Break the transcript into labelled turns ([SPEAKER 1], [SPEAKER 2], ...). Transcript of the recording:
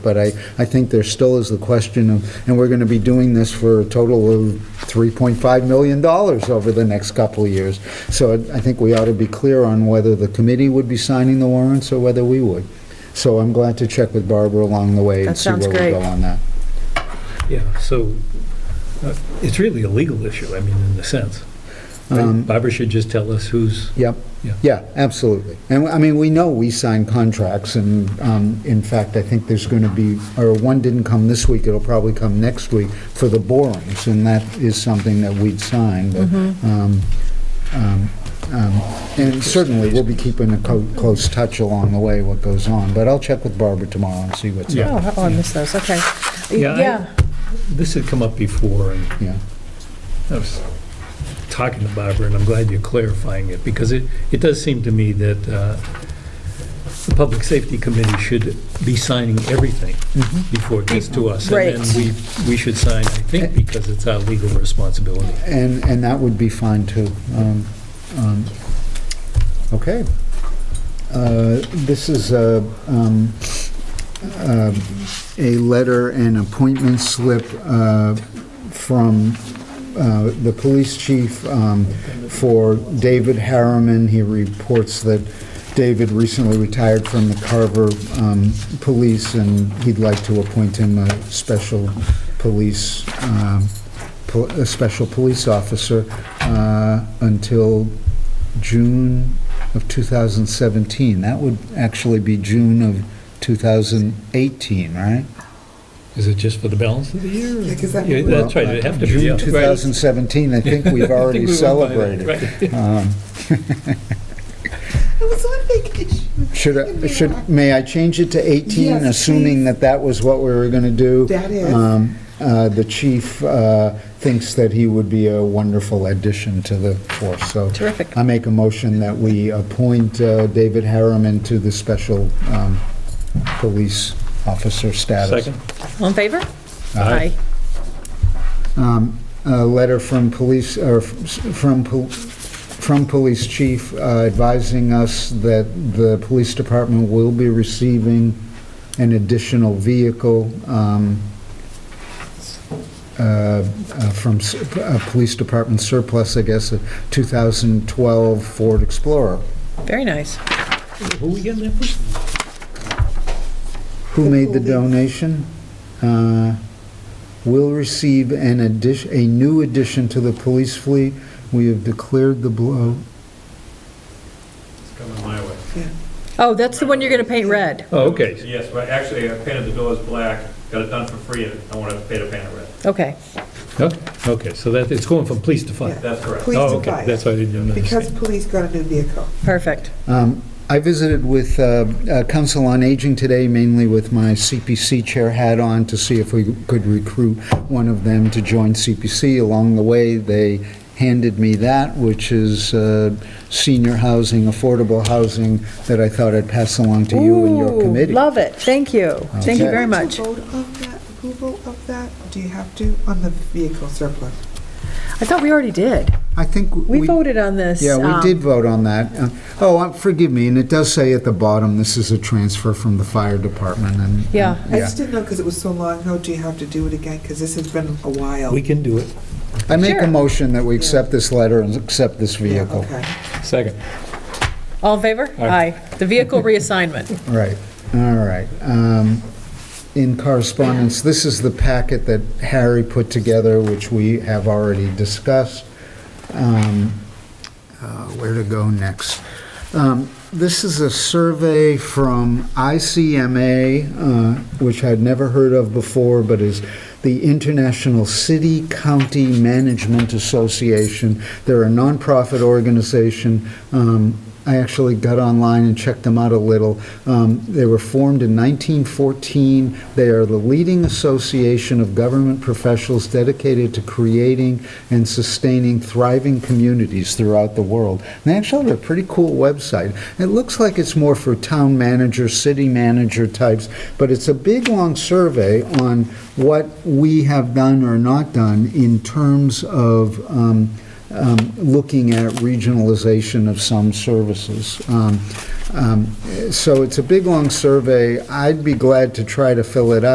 [SPEAKER 1] But I, I think there still is the question of, and we're going to be doing this for a total of $3.5 million over the next couple of years. So I think we ought to be clear on whether the committee would be signing the warrants or whether we would. So I'm glad to check with Barbara along the way
[SPEAKER 2] That
[SPEAKER 1] and see
[SPEAKER 2] sounds
[SPEAKER 1] where we
[SPEAKER 2] great.
[SPEAKER 1] go on that.
[SPEAKER 3] Yeah, so uh, it's really a legal issue, I mean, in a sense.
[SPEAKER 1] Um,
[SPEAKER 3] Barbara should just tell us who's,
[SPEAKER 1] Yep.
[SPEAKER 3] Yeah.
[SPEAKER 1] Yeah, absolutely. And, I mean, we know we sign contracts, and um, in fact, I think there's going to be, or one didn't come this week, it'll probably come next week for the borings, and that is something that we'd signed. but, um, um, um, And certainly, we'll be keeping a co- close touch along the way, what goes on. But I'll check with Barbara tomorrow and see what's up.
[SPEAKER 3] Yeah.
[SPEAKER 2] Oh, oh, I missed those, okay.
[SPEAKER 3] Yeah, I-
[SPEAKER 2] Yeah,
[SPEAKER 3] this had come up before, and
[SPEAKER 1] Yeah,
[SPEAKER 3] I was talking to Barbara, and I'm glad you're clarifying it, because it, it does seem to me that uh, the Public Safety Committee should be signing everything
[SPEAKER 1] Mm-hmm.
[SPEAKER 3] before it gets to us. And
[SPEAKER 2] Right.
[SPEAKER 3] then we, we should sign, I think, because it's our legal responsibility.
[SPEAKER 1] and, and that would be fine, too. Um, um, Okay. Uh, This is a, um, um, a letter and appointment slip uh, from uh, the police chief um, for David Harriman. He reports that David recently retired from the Carver um, Police, and he'd like to appoint him a special police, um, pol- a special police officer uh, until June of 2017. That would actually be June of 2018, right?
[SPEAKER 3] Is it just for the balance of the year?
[SPEAKER 4] Yeah, 'cause that-
[SPEAKER 3] Yeah, That's right, it'd have to be, yeah.
[SPEAKER 1] June 2017, I think we've already celebrated.
[SPEAKER 3] celebrated.
[SPEAKER 1] Um,
[SPEAKER 4] I was on vacation.
[SPEAKER 1] Should, I- should, may I change it to 18,
[SPEAKER 4] Yes,
[SPEAKER 1] assuming
[SPEAKER 4] please.
[SPEAKER 1] that that was what we were going to do?
[SPEAKER 4] That is.
[SPEAKER 1] Um, uh, The chief uh, thinks that he would be a wonderful addition to the force, so.
[SPEAKER 2] Terrific.
[SPEAKER 1] I make a motion that we appoint uh, David Harriman to the special um, police officer status.
[SPEAKER 3] Second?
[SPEAKER 2] all in favor?
[SPEAKER 3] Aye.
[SPEAKER 1] Um, A letter from police, or f- from, pol- from police chief uh, advising us that the police department will be receiving an additional vehicle um, uh, uh, from s- uh, police department surplus, I guess, a 2012 Ford Explorer.
[SPEAKER 2] Very nice.
[SPEAKER 3] Who we getting that from?
[SPEAKER 1] Who made the donation? uh, Will receive an addition, a new addition to the police fleet. We have declared the blow.
[SPEAKER 5] It's coming my way.
[SPEAKER 2] Oh, that's the one you're gonna paint red,
[SPEAKER 3] Oh, okay.
[SPEAKER 5] Yes, but actually, I painted the doors black, got it done for free, and I want to pay to paint it red.
[SPEAKER 2] okay.
[SPEAKER 3] Huh? Okay, so that, it's going from police to fire.
[SPEAKER 4] Yeah.
[SPEAKER 5] That's correct.
[SPEAKER 4] Police
[SPEAKER 3] Oh,
[SPEAKER 4] to
[SPEAKER 3] okay,
[SPEAKER 4] fire.
[SPEAKER 3] that's why I didn't
[SPEAKER 4] Because
[SPEAKER 3] understand.
[SPEAKER 4] police got a new vehicle.
[SPEAKER 2] Perfect.
[SPEAKER 1] Um, I visited with uh, uh, Council on Aging today, mainly with my CPC chair hat on, to see if we could recruit one of them to join CPC. Along the way, they handed me that, which is uh, senior housing, affordable housing, that I thought I'd pass along to you and your
[SPEAKER 2] Ooh,
[SPEAKER 1] committee.
[SPEAKER 2] Love it, thank you, thank you
[SPEAKER 1] Okay.
[SPEAKER 2] very much.
[SPEAKER 4] Do you have to vote of that, approval of that? Do you have to on the vehicle surplus?
[SPEAKER 2] I thought we already did.
[SPEAKER 1] I think
[SPEAKER 2] We voted on this.
[SPEAKER 1] Yeah, we
[SPEAKER 2] um,
[SPEAKER 1] did vote on that. Uh, Oh, uh, forgive me, and it does say at the bottom, this is a transfer from the fire department, and...
[SPEAKER 2] Yeah.
[SPEAKER 4] I just didn't know because it was so long ago. Do you have to do it again? Because this has been a while.
[SPEAKER 3] We can do it.
[SPEAKER 1] I make
[SPEAKER 2] Sure.
[SPEAKER 1] a motion that we accept this letter and accept this
[SPEAKER 4] Yeah,
[SPEAKER 1] vehicle.
[SPEAKER 4] okay.
[SPEAKER 3] Second.
[SPEAKER 2] All in favor?
[SPEAKER 3] Aye.
[SPEAKER 2] The vehicle reassignment.
[SPEAKER 1] Right, all right. Um, In correspondence, this is the packet that Harry put together, which we have already discussed. Um, uh, Where to go next? Um, This is a survey from ICMA, uh, which I'd never heard of before, but is the International City County Management Association. They're a nonprofit organization. Um, I actually got online and checked them out a little. Um, They were formed in 1914. They are the leading association of government professionals dedicated to creating and sustaining thriving communities throughout the world. And They actually have a pretty cool website. It looks like it's more for town manager, city manager types, but it's a big, long survey on what we have done or not done in terms of um, um, looking at regionalization of some services. Um, um, So it's a big, long survey. I'd be glad to try to fill it out.